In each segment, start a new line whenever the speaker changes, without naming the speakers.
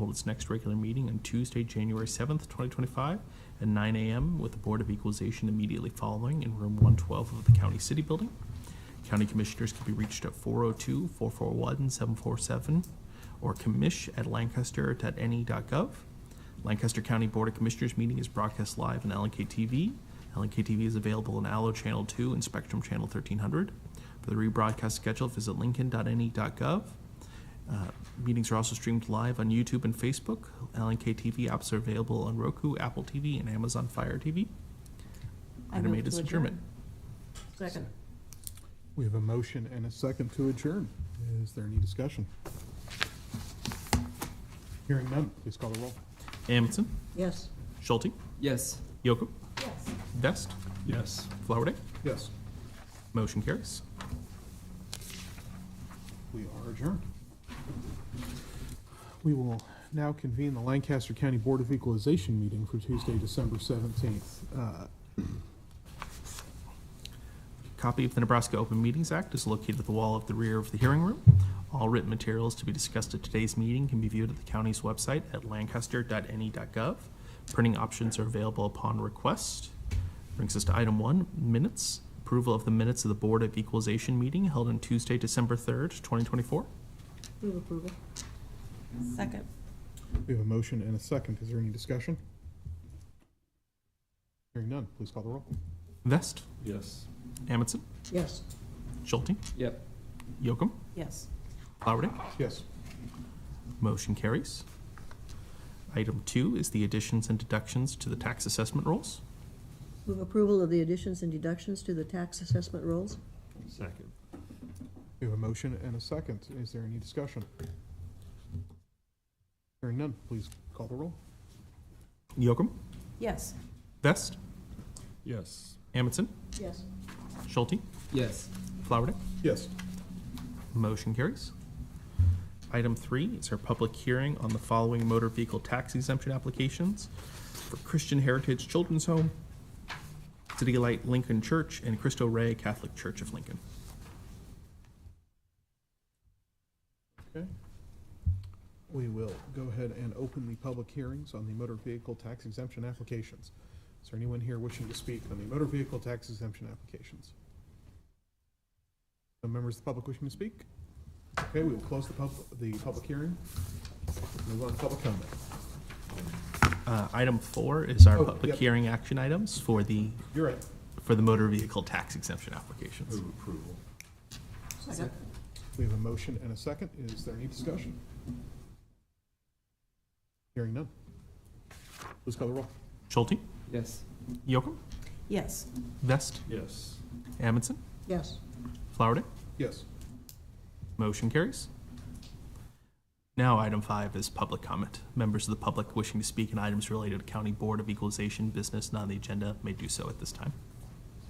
hold its next regular meeting on Tuesday, January 7th, 2025, at 9 a.m. with the Board of Equalization immediately following in Room 112 of the County City Building. County Commissioners can be reached at 402-441-747 or commish@lancaster.ne.gov. E Lancaster County Board of Commissioners meeting is broadcast live on LNK TV. LNK TV is available on Allo Channel 2 and Spectrum Channel 1300. For the rebroadcast schedule, visit E lincoln.ne.gov. Uh, Meetings are also streamed live on YouTube and Facebook. LNK TV apps are available on Roku, Apple TV, and Amazon Fire TV.
I
Item
move
eight is
to adjourn.
adjournment.
Second.
We have a motion and a second to adjourn. Is there any discussion? Hearing none, please call the roll.
Amundson,
Yes.
Schulte,
Yes.
Yocum,
Yes.
Vest,
Yes.
Flowerday.
Yes,
Motion carries.
we are adjourned. We will now convene the Lancaster County Board of Equalization meeting for Tuesday, December 17th. Uh,
Copy of the Nebraska Open Meetings Act is located at the wall of the rear of the hearing room. All written materials to be discussed at today's meeting can be viewed at the county's website at lancaster.ne.gov. Printing options are available upon request. Brings us to item one, minutes. Approval of the minutes of the Board of Equalization meeting held on Tuesday, December 3rd, 2024.
Move approval. Second.
We have a motion and a second. Is there any discussion? Hearing none, please call the roll.
Vest,
Yes.
Amundson,
Yes.
Schulte,
Yep.
Yocum,
Yes.
Flowerday.
Yes,
Motion carries. Item two is the additions and deductions to the tax assessment rolls.
Move approval of the additions and deductions to the tax assessment rolls?
Second.
we have a motion and a second. Is there any discussion? Hearing none, please call the roll.
Yocum,
Yes.
Vest,
Yes.
Amundson,
Yes.
Schulte,
Yes.
Flowerday.
Yes.
Motion carries. Item three is our public hearing on the following motor vehicle tax exemption applications for Christian Heritage Children's Home, City Light Lincoln Church, and Cristo Rey Catholic Church of Lincoln.
Okay. We will go ahead and open the public hearings on the motor vehicle tax exemption applications. Is there anyone here wishing to speak on the motor vehicle tax exemption applications? No members of the public wishing to speak? Okay, we will close the pub, the public hearing. Move on to public comment.
Uh, Item four is our
Oh,
public
yep.
hearing action items for the,
You're right.
for the motor vehicle tax exemption applications.
approval.
Second.
We have a motion and a second. Is there any discussion? Hearing none. Please call the roll.
Schulte,
Yes.
Yocum,
Yes.
Vest,
Yes.
Amundson,
Yes.
Flowerday.
Yes.
Motion carries. Now, item five is public comment. Members of the public wishing to speak on items related to County Board of Equalization business not on the agenda may do so at this time.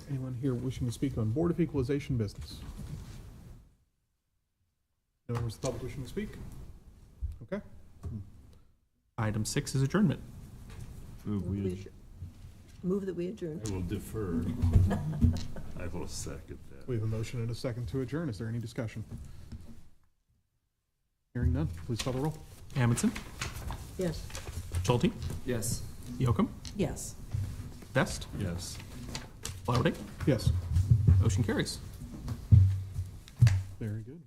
Anyone here wishing to speak on Board of Equalization business? No members of the public wishing to speak? Okay,
Item six is adjournment.
Move
Move
we,
we adjourn- Move that we adjourn.
I will defer. I will second that.
we have a motion and a second to adjourn. Is there any discussion? Hearing none, please call the roll.
Amundson,
Yes.
Schulte,
Yes.
Yocum,
Yes.
Vest,
Yes.
Flowerday.
Yes.
Motion carries.
Very good.